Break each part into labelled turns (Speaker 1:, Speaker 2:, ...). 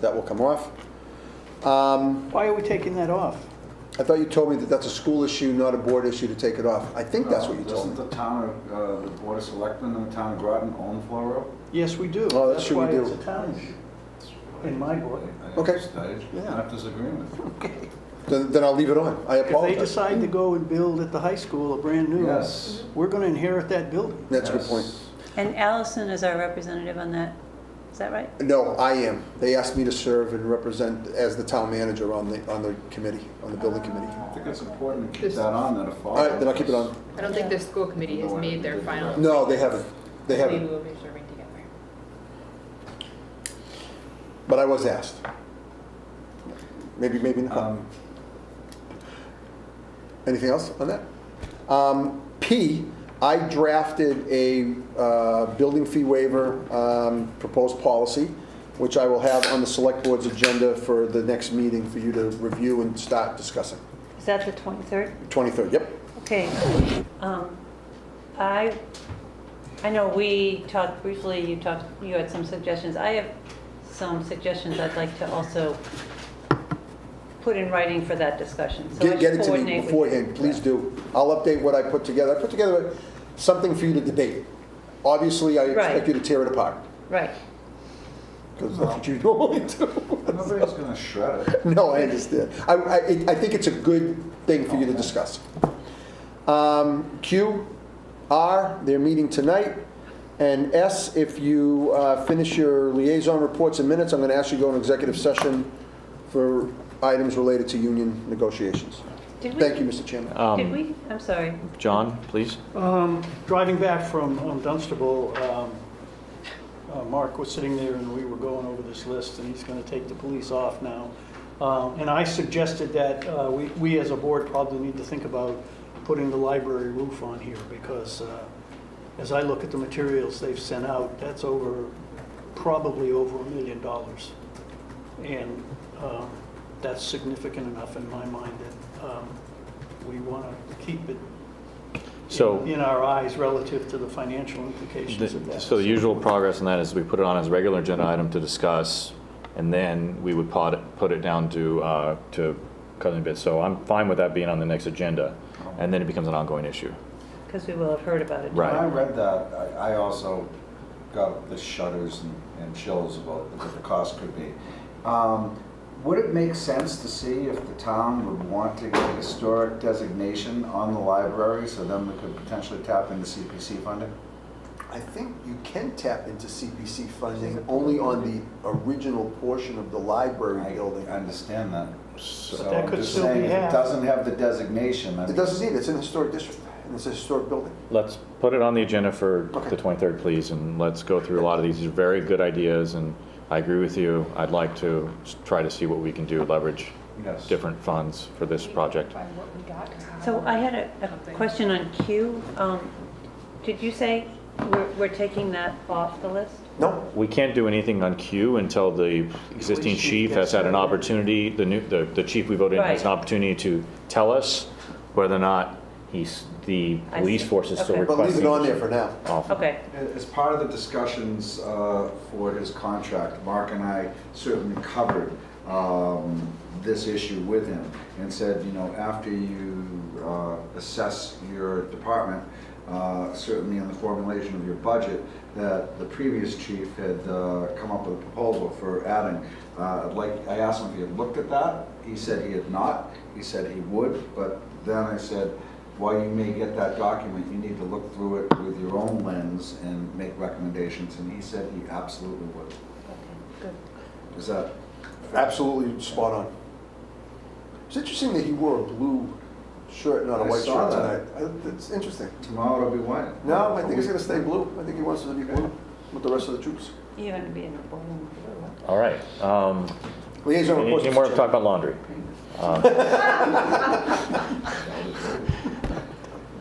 Speaker 1: That will come off. Um,
Speaker 2: Why are we taking that off?
Speaker 1: I thought you told me that that's a school issue, not a board issue to take it off. I think that's what you told
Speaker 3: Uh, Doesn't
Speaker 1: me.
Speaker 3: the town, of, uh, the Board of Selectmen and the town of Groton own Flore Road?
Speaker 2: Yes, we do.
Speaker 1: Oh, that should we do.
Speaker 2: That's why it's a town issue, in my book.
Speaker 3: I
Speaker 1: Okay.
Speaker 3: just- I did not disagree with you.
Speaker 1: Then then I'll leave it on. I
Speaker 2: If they
Speaker 1: apologize.
Speaker 2: decide to go and build at the high school a brand new,
Speaker 3: Yes.
Speaker 2: we're going to inherit that building.
Speaker 1: Hmm. Mm-hmm. That's a good
Speaker 3: Yes.
Speaker 1: point.
Speaker 4: And Allison is our representative on that, is that right?
Speaker 1: No, I am. They asked me to serve and represent as the town manager on the, on the committee, on the building committee.
Speaker 3: I think it's important to keep
Speaker 5: This-
Speaker 3: that on, that if.
Speaker 1: All right, then I'll keep it on.
Speaker 5: I don't think the school committee has made their final.
Speaker 1: No, they haven't. They
Speaker 5: We
Speaker 1: haven't,
Speaker 5: will be serving together.
Speaker 1: but I was asked. Maybe, maybe not.
Speaker 3: Um,
Speaker 1: Anything else on that? Um, P, I drafted a uh, building fee waiver um, proposed policy, which I will have on the select board's agenda for the next meeting for you to review and start discussing.
Speaker 4: Is that the 23rd?
Speaker 1: 23rd, yep.
Speaker 4: Okay. Um, I, I know we talked briefly, you talked, you had some suggestions. I have some suggestions I'd like to also put in writing for that discussion. So I
Speaker 1: Get, get
Speaker 4: should
Speaker 1: it to me
Speaker 4: coordinate with you.
Speaker 1: beforehand, please do. I'll update what I put together. I put together something for you to debate. Obviously, I expect
Speaker 4: Right.
Speaker 1: you to tear it apart,
Speaker 4: Right.
Speaker 1: because that's what you normally do.
Speaker 3: Nobody's gonna shred it.
Speaker 1: No, I understand. I, I, it- I think it's a good thing for you to discuss. Um, Q, R, they're meeting tonight. And S, if you uh, finish your liaison reports and minutes, I'm going to ask you to go in executive session for items related to union negotiations.
Speaker 4: Did we?
Speaker 1: Thank you, Mr. Chairman.
Speaker 4: Did
Speaker 6: Um,
Speaker 4: we? I'm sorry.
Speaker 6: John, please.
Speaker 2: Um, Driving back from um, Dunstable, um, uh, Mark was sitting there and we were going over this list and he's going to take the police off now. Um, And I suggested that uh, we, we as a board probably need to think about putting the library roof on here because uh, as I look at the materials they've sent out, that's over, probably over a million dollars. And um, that's significant enough in my mind that um, we want to keep it
Speaker 6: So-
Speaker 2: in our eyes relative to the financial implications of
Speaker 6: The-
Speaker 2: that.
Speaker 6: So the usual progress on that is we put it on as a regular agenda item to discuss, and then we would pot, put it down to, uh, to cut it a bit. So I'm fine with that being on the next agenda, and then it becomes an ongoing issue.
Speaker 4: Because we will have heard about it.
Speaker 6: Right.
Speaker 3: When I read that, I, I also got the shudders and- and chills about what the cost could be. Um, Would it make sense to see if the town would want to get historic designation on the library, so then we could potentially tap into CPC funding?
Speaker 1: I think you can tap into CPC funding only on the original portion of the library
Speaker 3: I understand that. So
Speaker 2: that
Speaker 3: I'm
Speaker 2: could
Speaker 3: just
Speaker 2: still be
Speaker 3: saying, if it
Speaker 2: half.
Speaker 3: doesn't have the designation, I
Speaker 1: It
Speaker 3: mean,
Speaker 1: doesn't need it, it's in a historic district, and it's a historic building.
Speaker 6: Let's put it on the agenda for
Speaker 1: Okay.
Speaker 6: the 23rd, please, and let's go through a lot of these. These are very good ideas, and I agree with you. I'd like to s- try to see what we can do, leverage
Speaker 3: yes.
Speaker 6: different funds for this project.
Speaker 5: By what we got. or how-
Speaker 4: So I had a, a question on Q. Um, Did you say we're, we're taking that off the list?
Speaker 1: No,
Speaker 6: We can't do anything on Q until the existing
Speaker 2: Police chief
Speaker 6: chief has had an
Speaker 2: gets-
Speaker 6: opportunity, the new, the, the chief we voted in has an
Speaker 4: Right.
Speaker 6: opportunity to tell us whether or not he's, the
Speaker 4: I
Speaker 6: police
Speaker 4: see.
Speaker 6: force is still
Speaker 4: Okay.
Speaker 6: requesting.
Speaker 1: But leave it on there for now.
Speaker 6: Off.
Speaker 4: Okay.
Speaker 3: As part of the discussions uh, for his contract, Mark and I certainly covered um, this issue with him and said, you know, after you uh, assess your department, uh, certainly in the formulation of your budget, that the previous chief had uh, come up with a proposal for adding, uh, like, I asked him if he had looked at that. He said he had not. He said he would, but then I said, while you may get that document, you need to look through it with your own lens and make recommendations, and he said he absolutely would. Is that,
Speaker 1: Absolutely spot on. It's interesting that he wore a blue shirt, not a
Speaker 3: I
Speaker 1: white
Speaker 3: saw
Speaker 1: shirt tonight.
Speaker 3: that.
Speaker 1: I- It's interesting.
Speaker 3: tomorrow it'll be white?
Speaker 1: No, I think it's gonna stay blue. I think he wants it to be blue with the rest of the troops.
Speaker 4: You're going to be in the boardroom.
Speaker 6: All right. Um,
Speaker 1: Liaison
Speaker 6: any,
Speaker 1: reports.
Speaker 6: any
Speaker 1: Mr.
Speaker 6: more to
Speaker 1: Chairman.
Speaker 6: talk about laundry? Um,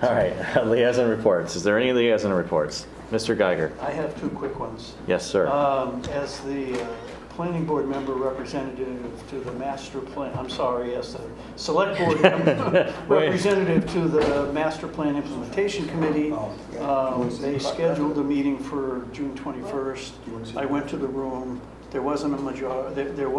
Speaker 6: All right, liaison reports. Is there any liaison reports? Mr. Geiger?
Speaker 2: I have two quick ones.
Speaker 6: Yes, sir.
Speaker 2: Um, As the uh, planning board member representative to the master plan, I'm sorry, as the select board member
Speaker 6: Wait.
Speaker 2: representative to the master plan implementation committee,
Speaker 1: Oh, yeah.
Speaker 2: um, they scheduled a meeting for June 21st. I went to the room, there wasn't a major, there, there